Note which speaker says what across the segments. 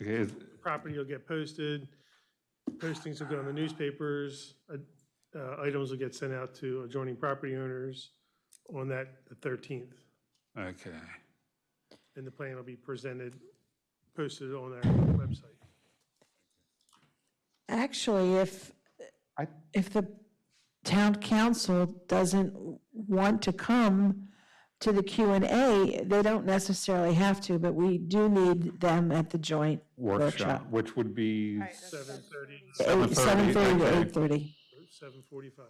Speaker 1: Okay, is-
Speaker 2: property will get posted, postings will go in the newspapers, uh, uh, items will get sent out to adjoining property owners on that the 13th,
Speaker 1: okay,
Speaker 2: and the plan will be presented, posted on our website.
Speaker 3: Actually, if,
Speaker 1: I-
Speaker 3: if the town council doesn't want to come to the Q and A, they don't necessarily have to, but we do need them at the joint
Speaker 1: workshop,
Speaker 3: workshop.
Speaker 1: which would be,
Speaker 2: 7:30,
Speaker 3: Eight-
Speaker 1: 7:30,
Speaker 3: 7:30
Speaker 1: okay.
Speaker 3: to 8:30.
Speaker 2: 7:45.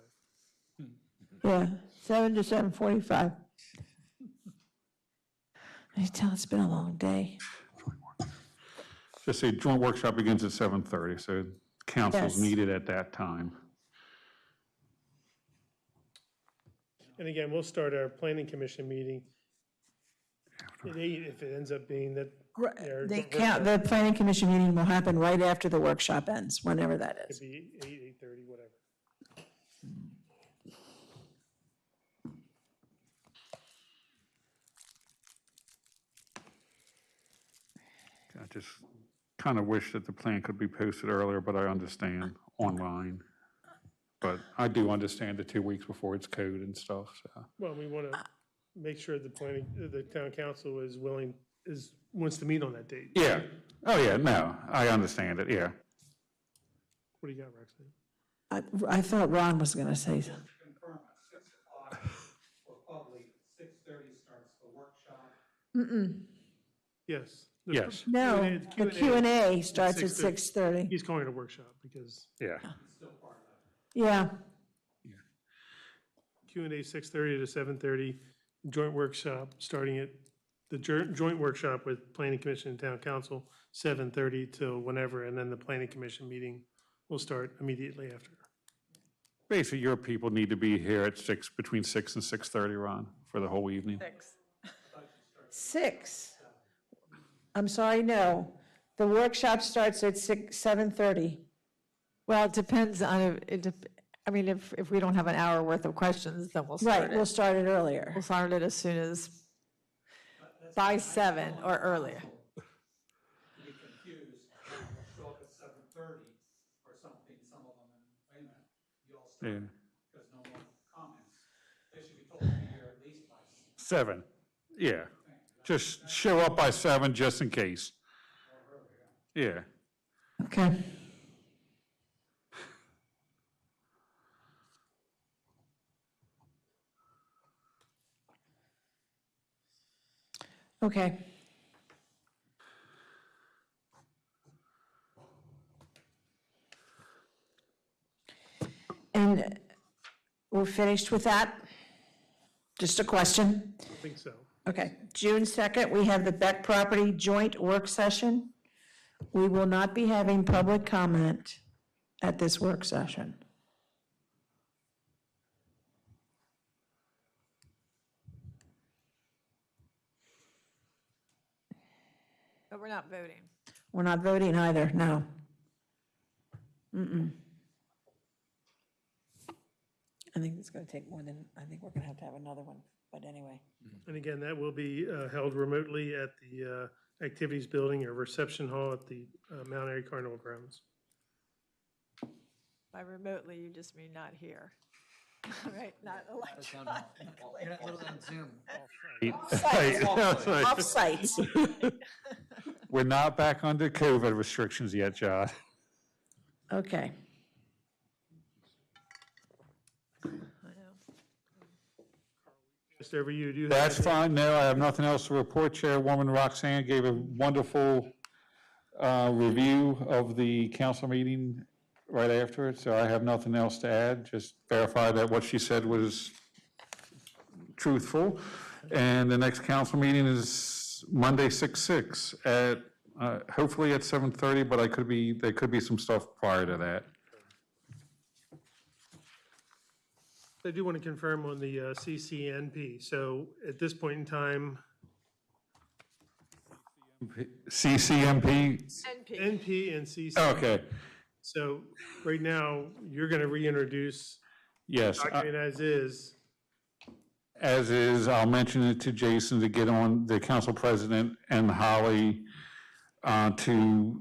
Speaker 3: Yeah, 7 to 7:45. I can tell it's been a long day.
Speaker 1: just say joint workshop begins at 7:30, so council's
Speaker 3: Yes.
Speaker 1: needed at that time.
Speaker 2: And again, we'll start our planning commission meeting at eight, if it ends up being that Their
Speaker 3: The
Speaker 2: joint
Speaker 3: count, the planning commission meeting will happen right after the workshop ends, whenever that is.
Speaker 2: it'd be eight, 8:30, whatever.
Speaker 1: I just kind of wish that the plan could be posted earlier, but I understand online. But I do understand the two weeks before it's code and stuff, so.
Speaker 2: Well, we want to make sure the planning, the town council is willing, is, wants to meet on that date.
Speaker 1: Yeah, oh yeah, no, I understand it, yeah.
Speaker 2: What do you got, Roxanne?
Speaker 3: I, I thought Ron was going to say,
Speaker 4: confirm at six o'clock for public, six thirty starts the workshop.
Speaker 2: Yes. The-
Speaker 1: Yes.
Speaker 3: no,
Speaker 2: Q&A it's
Speaker 3: the
Speaker 2: Q&A.
Speaker 3: Q and A starts at
Speaker 2: 6:30.
Speaker 3: 6:30.
Speaker 2: He's calling it a workshop because
Speaker 1: Yeah.
Speaker 3: Yeah,
Speaker 2: Q and A six thirty to seven thirty, joint workshop, starting at the jour- joint workshop with planning commission and town council, seven thirty till whenever, and then the planning commission meeting will start immediately after.
Speaker 1: Basically, your people need to be here at six, between six and 6:30, Ron, for the whole evening.
Speaker 3: six. I'm sorry, no. The workshop starts at 6, 7:30.
Speaker 5: Well, it depends on, if- it, dep- I mean, if, if we don't have an hour worth of questions, then we'll
Speaker 3: Right,
Speaker 5: start
Speaker 3: we'll
Speaker 5: it.
Speaker 3: start it earlier.
Speaker 5: We'll start it as soon as, by seven or earlier.
Speaker 4: You get confused, will show up at seven thirty or something, some of them, and wait a minute, you all
Speaker 1: Yeah.
Speaker 4: start, because no more comments. They should be told to be here at least by six.
Speaker 1: Seven, yeah. Just show up by seven, just in case. Yeah,
Speaker 3: Okay. Okay. And we're finished with that? Just a question?
Speaker 2: I think so.
Speaker 3: Okay, June 2nd, we have the Beck Property Joint Work Session. We will not be having public comment at this work session.
Speaker 5: But we're not voting.
Speaker 3: We're not voting either, no. Mm-mm. I think it's going to take more than, I think we're going to have to have another one, but anyway.
Speaker 2: And again, that will be uh, held remotely at the uh, activities building or reception hall at the uh, Mount Airy Carnival grounds.
Speaker 5: By remotely, you just mean not here. Right, not electronic.
Speaker 4: Little on Zoom.
Speaker 1: Hey,
Speaker 3: Off-site.
Speaker 1: We're not back under COVID restrictions yet, John.
Speaker 3: Okay.
Speaker 5: I know.
Speaker 2: Mr. Every you do. have
Speaker 1: That's
Speaker 2: any-
Speaker 1: fine, no, I have nothing else to report. Chairwoman Roxanne gave a wonderful uh, review of the council meeting right after it, so I have nothing else to add. Just verify that what she said was truthful. And the next council meeting is Monday, 6/6, at, uh, hopefully at 7:30, but I could be, there could be some stuff prior to that.
Speaker 2: I do want to confirm on the uh, CCNP. So at this point in time,
Speaker 1: CCMP,
Speaker 5: NP,
Speaker 2: NP and CC.
Speaker 1: okay,
Speaker 2: So right now, you're going to reintroduce
Speaker 1: yes. I-
Speaker 2: document as is.
Speaker 1: As is, I'll mention it to Jason to get on the council president and Holly uh, to